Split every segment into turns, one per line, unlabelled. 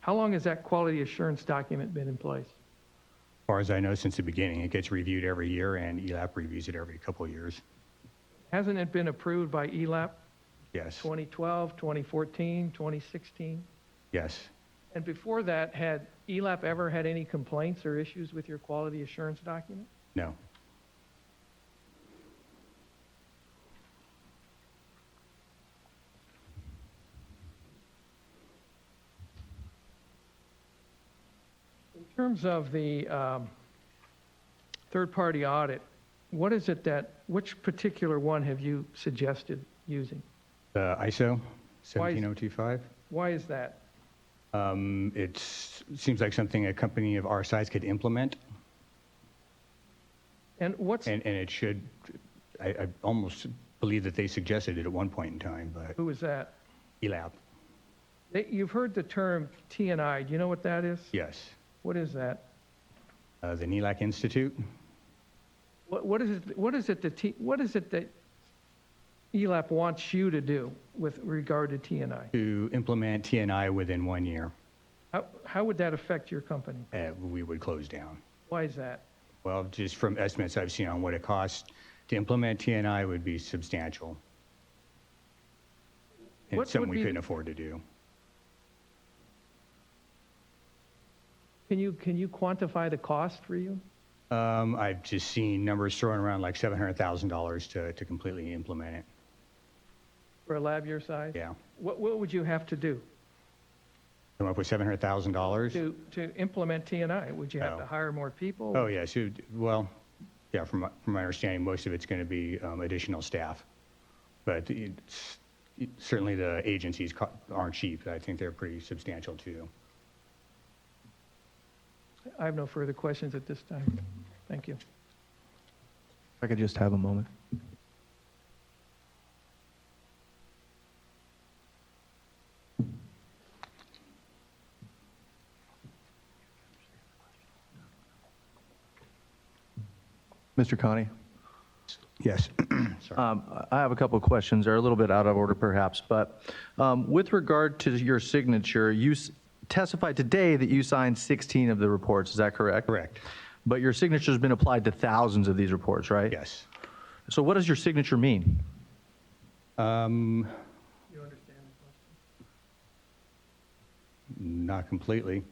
How long has that quality assurance document been in place?
As far as I know, since the beginning, it gets reviewed every year and E ELAP reviews it every couple of years.
Hasn't it been approved by E ELAP
Yes,
2012, 2014, 2016?
yes.
And before that, had E ELAP ever had any complaints or issues with your quality assurance document?
No,
In terms of the um, third-party audit, what is it that, which particular one have you suggested using?
the ISO
Why is-
17025.
Why is that?
Um, It seems like something a company of our size could implement,
And what's,
and, and it should, I, I almost believe that they suggested it at one point in time, but E
who is that?
ELAP,
They- You've heard the term TNI. Do you know what that is?
yes.
What is that?
Uh, The NELAC Institute,
What, what is it, what is it that, T- what is it that E ELAP wants you to do with regard to TNI?
to implement TNI within one year,
How, how would that affect your company?
uh, we would close down.
Why is that?
Well, just from estimates I've seen on what it costs to implement TNI would be substantial. And
What
it's something
would
we
be
couldn't
the-
afford to do.
Can you, can you quantify the cost for you?
Um, I've just seen numbers thrown around like $700,000 to, to completely implement it.
For a lab your size?
Yeah.
What, what would you have to do
Come up with $700,000?
to, to implement TNI? Would you have to
Oh.
hire more people?
Oh, yes. it- Well, yeah, from, my- from my understanding, most of it's going to be um, additional staff. But it's, it- certainly the agencies co- aren't cheap. I think they're pretty substantial too.
I have no further questions at this time. Thank you.
If I could just have a moment. Mr. Connie,
Yes. Sorry.
um, I I have a couple of questions. They're a little bit out of order perhaps, but um, with regard to your signature, you s- testified today that you signed 16 of the reports. Is that correct?
Correct.
But your signature's been applied to thousands of these reports, right?
Yes.
So what does your signature mean?
Not completely.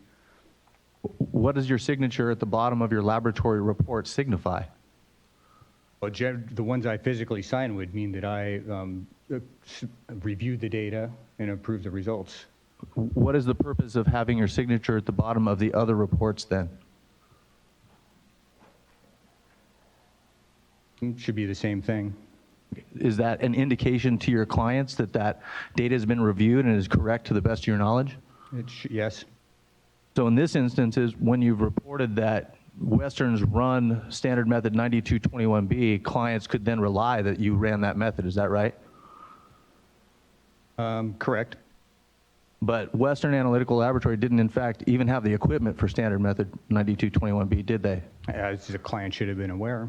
What does your signature at the bottom of your laboratory report signify?
Well, gen- the ones I physically sign would mean that I um, uh, s- reviewed the data and approved the results.
What is the purpose of having your signature at the bottom of the other reports then?
Mm, Should be the same thing.
Is that an indication to your clients that that data has been reviewed and is correct to the best of your knowledge?
It sh- Yes,
So in this instance is when you've reported that Western's run standard method 9221B, clients could then rely that you ran that method, is that right?
Um, correct.
But Western Analytical Laboratory didn't in fact even have the equipment for standard method 9221B, did they?
As the client should have been aware.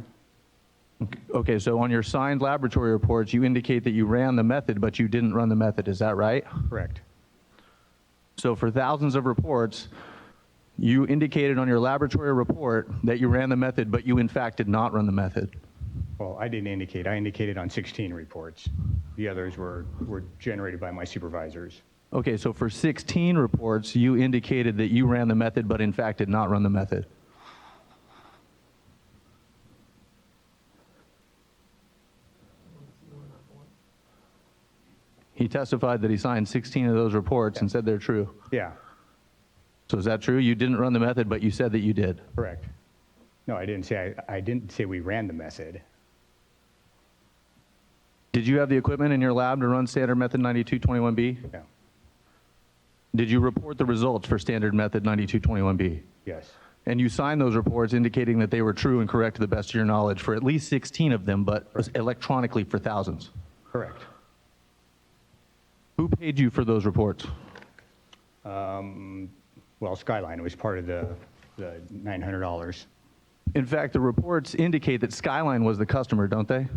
Okay, so on your signed laboratory reports, you indicate that you ran the method, but you didn't run the method, is that right?
Correct.
So for thousands of reports, you indicated on your laboratory report that you ran the method, but you in fact did not run the method.
Well, I didn't indicate. I indicated on 16 reports. The others were, were generated by my supervisors.
Okay, so for 16 reports, you indicated that you ran the method, but in fact did not run the method. He testified that he signed 16 of those reports and said they're true.
Yeah,
So is that true? You didn't run the method, but you said that you did.
correct. No, I didn't say, I I didn't say we ran the method.
Did you have the equipment in your lab to run standard method 9221B?
No,
Did you report the results for standard method 9221B?
yes,
And you signed those reports indicating that they were true and correct to the best of your knowledge for at least 16 of them, but electronically for thousands.
correct.
Who paid you for those reports?
Well, Skyline was part of the, the $900.
In fact, the reports indicate that Skyline was the customer, don't they?